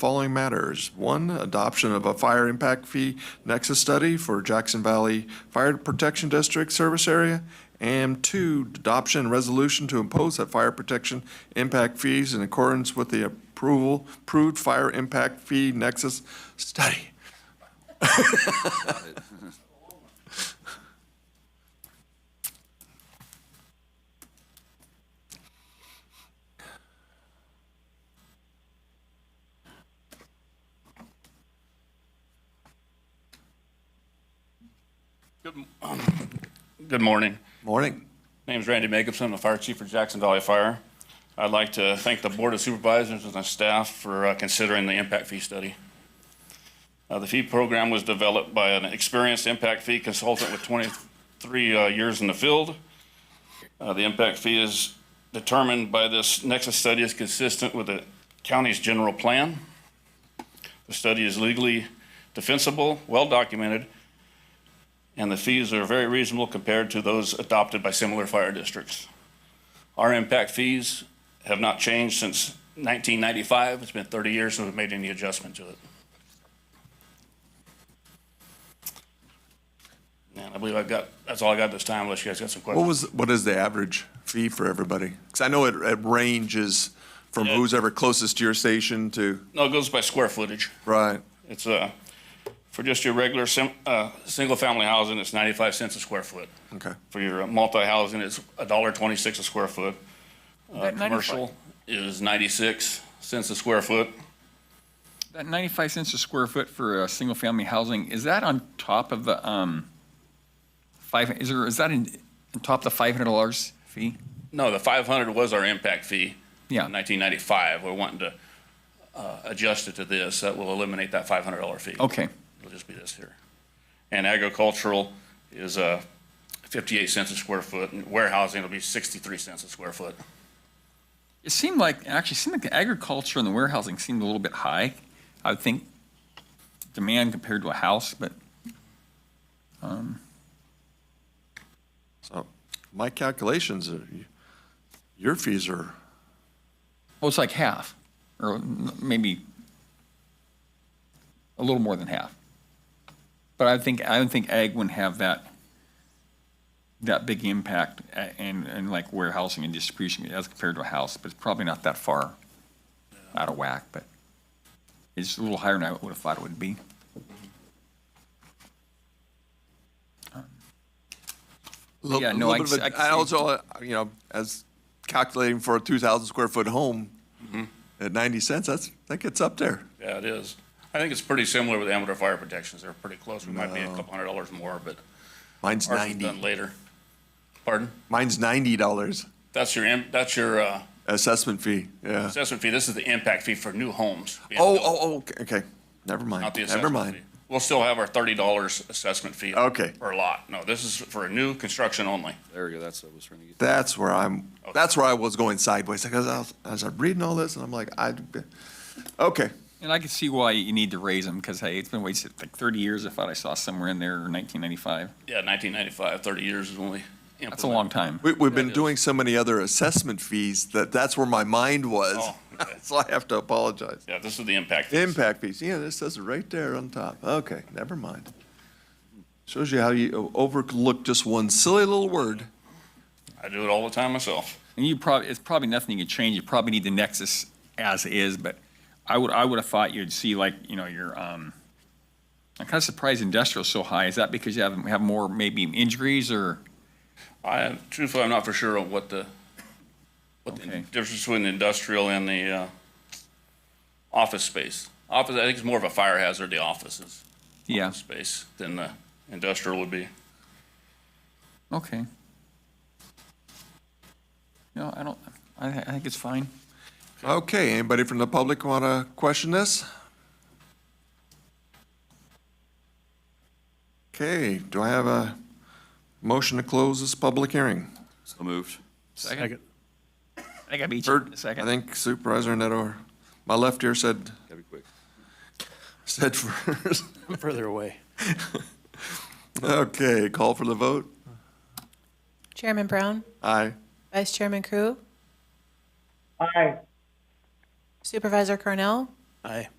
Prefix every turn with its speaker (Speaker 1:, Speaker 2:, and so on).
Speaker 1: following matters. One, adoption of a fire impact fee nexus study for Jackson Valley Fire Protection District service area. And two, adoption and resolution to impose that fire protection impact fees in accordance with the approval, approved fire impact fee nexus study.
Speaker 2: Good morning.
Speaker 1: Morning.
Speaker 2: My name is Randy Jacobson, I'm the fire chief for Jackson Valley Fire. I'd like to thank the Board of Supervisors and the staff for uh, considering the impact fee study. Uh, The fee program was developed by an experienced impact fee consultant with 23 uh, years in the field. Uh, The impact fee is determined by this nexus study is consistent with the county's general plan. The study is legally defensible, well-documented, and the fees are very reasonable compared to those adopted by similar fire districts. Our impact fees have not changed since 1995. It's been 30 years since we've made any adjustment to it. And I believe I've got, that's all I got this time, unless you guys got some
Speaker 1: What
Speaker 2: questions.
Speaker 1: was, what is the average fee for everybody? Because I know it, it ranges from
Speaker 2: Yeah.
Speaker 1: who's ever closest to your station to,
Speaker 2: No, it goes by square footage.
Speaker 1: right?
Speaker 2: It's, uh, for just your regular sim, uh, single-family housing, it's 95 cents a square foot.
Speaker 1: Okay.
Speaker 2: For your uh, multi-housing, it's $1.26 a square foot. Uh,
Speaker 3: That 95,
Speaker 2: Commercial is 96 cents a square foot.
Speaker 3: that 95 cents a square foot for a single-family housing, is that on top of the, um, five, is there, is that in, on top of the $500 fee?
Speaker 2: No, the 500 was our impact fee.
Speaker 3: Yeah.
Speaker 2: In 1995, we're wanting to uh, adjust it to this. That will eliminate that $500 fee.
Speaker 3: Okay,
Speaker 2: It'll just be this here. And agricultural is uh, 58 cents a square foot, and warehousing will be 63 cents a square foot.
Speaker 3: it seemed like, actually, it seemed like the agriculture and the warehousing seemed a little bit high, I would think, demand compared to a house, but
Speaker 1: So my calculations, are your fees are,
Speaker 3: Well, it's like half, or n- maybe a little more than half. But I think, I don't think ag wouldn't have that, that big impact a- and, and like warehousing and distribution as compared to a house, but it's probably not that far out of whack, but it's a little higher than I would have thought it would be.
Speaker 1: Little-
Speaker 3: Yeah, no,
Speaker 1: little
Speaker 3: I
Speaker 1: bit
Speaker 3: can
Speaker 1: of
Speaker 3: see-
Speaker 1: a-
Speaker 3: I
Speaker 1: I
Speaker 3: can see-
Speaker 1: also, uh, you know, as calculating for a 2,000 square foot home
Speaker 2: Mm-hmm.
Speaker 1: at 90 cents, that's, that gets up there.
Speaker 2: Yeah, it is. I think it's pretty similar with amateur fire protections. They're pretty close. We might be a couple hundred dollars more, but
Speaker 1: Mine's
Speaker 2: ours is
Speaker 1: 90,
Speaker 2: done later. Pardon?
Speaker 1: mine's $90
Speaker 2: That's your, im- that's your uh,
Speaker 1: assessment fee, yeah.
Speaker 2: assessment fee. This is the impact fee for new homes. being
Speaker 1: Oh,
Speaker 2: built.
Speaker 1: oh, oh, okay, okay, never mind,
Speaker 2: Not the
Speaker 1: never
Speaker 2: assessment fee.
Speaker 1: mind.
Speaker 2: We'll still have our thirty dollars assessment fee.
Speaker 1: Okay.
Speaker 2: Per lot. No, this is for a new construction only.
Speaker 4: There we go, that's what I was trying to get.
Speaker 1: That's where I'm, that's where I was going sideways, because I was, as I'm reading all this, and I'm like, I, okay.
Speaker 3: And I can see why you need to raise them, because hey, it's been wasted like 30 years, I thought I saw somewhere in there, or 1995.
Speaker 2: Yeah, 1995. Thirty years is when we.
Speaker 3: That's a long time.
Speaker 1: We, we've been
Speaker 2: it is.
Speaker 1: doing so many other assessment fees that that's where my mind was,
Speaker 2: Oh, okay.
Speaker 1: so I have to apologize.
Speaker 2: Yeah, this is the impact. fee.
Speaker 1: Impact fees, yeah, this says it right there on top. Okay, never mind. Shows you how you overlook just one silly little word.
Speaker 2: I do it all the time myself.
Speaker 3: And you probably, it's probably nothing you could change. You probably need the Nexus as is, but I would, I would have thought you'd see like, you know, your, um, I'm kind of surprised industrial's so high. Is that because you have, have more maybe injuries or?
Speaker 2: I, truthfully, I'm not for sure of what the, what the
Speaker 3: Okay.
Speaker 2: difference between industrial and the, uh, office space. Office, I think it's more of a fire hazard, the offices
Speaker 3: Yeah,
Speaker 2: space than the industrial would be.
Speaker 3: okay. No, I don't, I, I think it's fine.
Speaker 1: Okay, anybody from the public want to question this? Okay, do I have a motion to close this public hearing?
Speaker 4: So moved.
Speaker 3: Second. I think I beat you in
Speaker 1: Third,
Speaker 3: a
Speaker 1: I
Speaker 3: second.
Speaker 1: think Supervisor Neto, my left ear said,
Speaker 4: Gotta be quick.
Speaker 1: said first.
Speaker 5: I'm further away.
Speaker 1: Okay, call for the vote.
Speaker 6: Chairman Brown,
Speaker 1: Aye.
Speaker 6: Vice Chairman Crew,
Speaker 7: Aye.
Speaker 6: Supervisor Cornell,
Speaker 5: Aye.